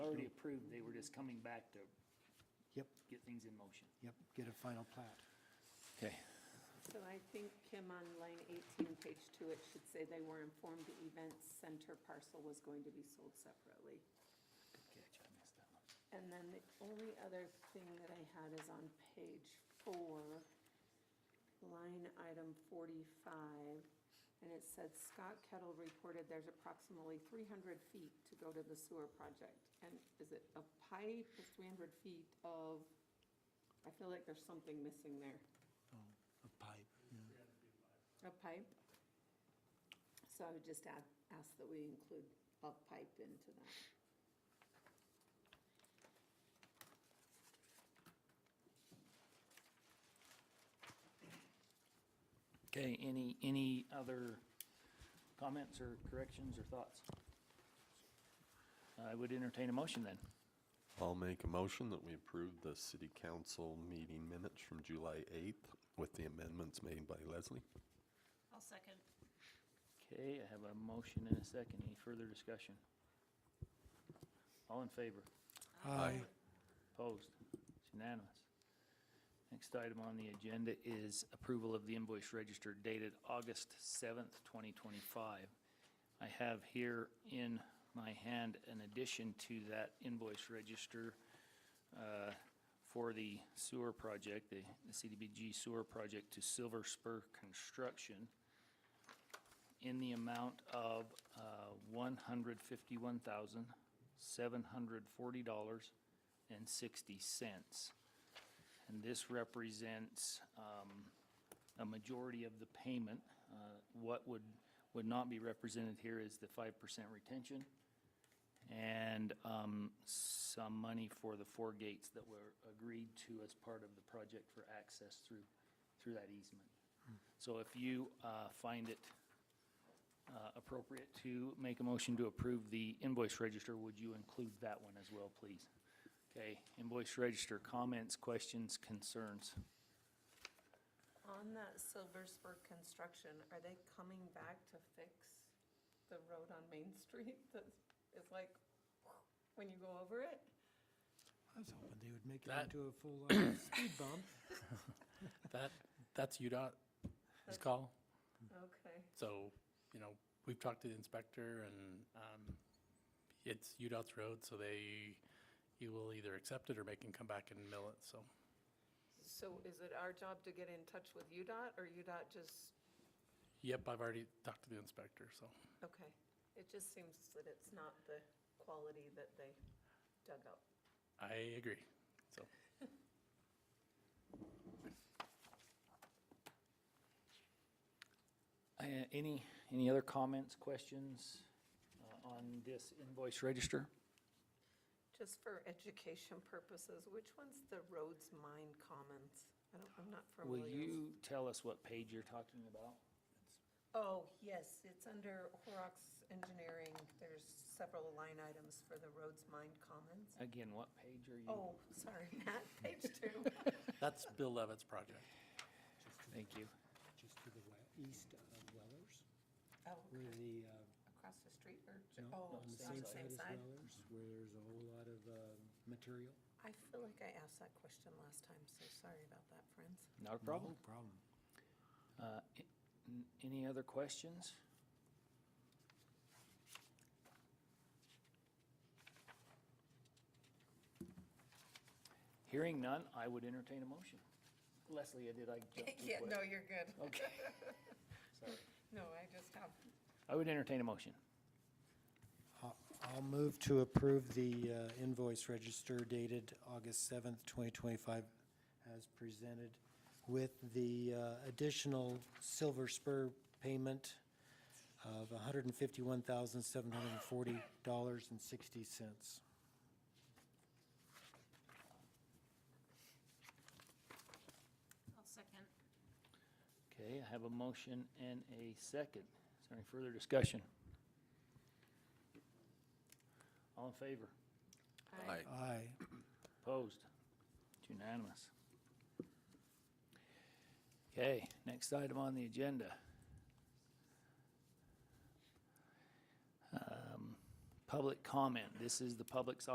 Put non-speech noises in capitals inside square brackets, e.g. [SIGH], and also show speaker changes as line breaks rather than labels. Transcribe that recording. approved, they were just coming back to
Yep,
get things in motion.
yep, get a final plat.
Okay,
So I think, Kim, on line 18, page 2, it should say they were informed the event center parcel was going to be sold separately.
good catch, I missed that one.
And then the only other thing that I had is on page four, line item 45, and it said Scott Kettle reported there's approximately 300 feet to go to the sewer project. And is it a pipe, It's 300 feet of, I feel like there's something missing there.
Oh, a pipe, yeah.
A pipe? So I would just add, ask that we include a pipe into that.
Okay, any, any other comments or corrections or thoughts? I would entertain a motion then.
I'll make a motion that we approve the city council meeting minutes from July 8th with the amendments made by Leslie.
I'll second.
Okay, I have a motion and a second. Any further discussion? All in favor?
Aye.
Opposed? It's unanimous. Next item on the agenda is approval of the invoice register dated August 7th, 2025. I have here in my hand an addition to that invoice register uh, for the sewer project, the the CDBG sewer project to Silver Spur Construction in the amount of uh, $151,740 and sixty cents. And this represents um, a majority of the payment. Uh, What would, would not be represented here is the five percent retention and um, some money for the four gates that were agreed to as part of the project for access through, through that easement. So if you uh, find it uh, appropriate to make a motion to approve the invoice register, would you include that one as well, please? Okay, invoice register, comments, questions, concerns?
On that Silver Spur construction, are they coming back to fix the road on Main Street [LAUGHS] that is like, [LAUGHS] when you go over it?
I was hoping they would make it
That-
into a full uh, speed bump.
That, that's UDOT's call.
Hmm.
Okay,
So, you know, we've talked to the inspector and um, it's UDOT's road, so they, you will either accept it or make him come back and mill it, so.
so is it our job to get in touch with UDOT or UDOT just,
Yep, I've already talked to the inspector, so.
okay. It just seems that it's not the quality that they dug up.
I agree, so.
Uh, Any, any other comments, questions uh, on this invoice register?
Just for education purposes, which one's the Rhodes Mine Commons? I don't, I'm not familiar.
Will you tell us what page you're talking about?
Oh, yes, it's under Horrocks Engineering. There's several line items for the Rhodes Mine Commons.
Again, what page are you?
Oh, sorry, [LAUGHS] Matt, page
[LAUGHS]
two.
That's Bill Levitt's project.
Just to-
Thank you.
Just to the we- east of Wellers,
Oh,
where the, uh,
across the street or,
no,
oh,
on the
on
same side as Wellers, where there's a whole lot of um, material.
I feel like I asked that question last time, so sorry about that, friends.
Not a problem.
No Problem.
Uh, a- n- Any other questions? Hearing none, I would entertain a motion. Leslie, I did I jump too quick?
[LAUGHS] Yeah, no, you're good.
Oh.
Okay. [LAUGHS] Sorry.
No, I just have,
I would entertain a motion.
I'll- I'll move to approve the uh, invoice register dated August 7th, 2025, as presented, with the uh, additional Silver Spur payment of $151,740.60.
I'll second.
Okay, I have a motion and a second. Is there any further discussion? All in favor?
Aye.
Aye.
Opposed? It's unanimous. Okay, next item on the agenda. Um, Public comment. This is the public's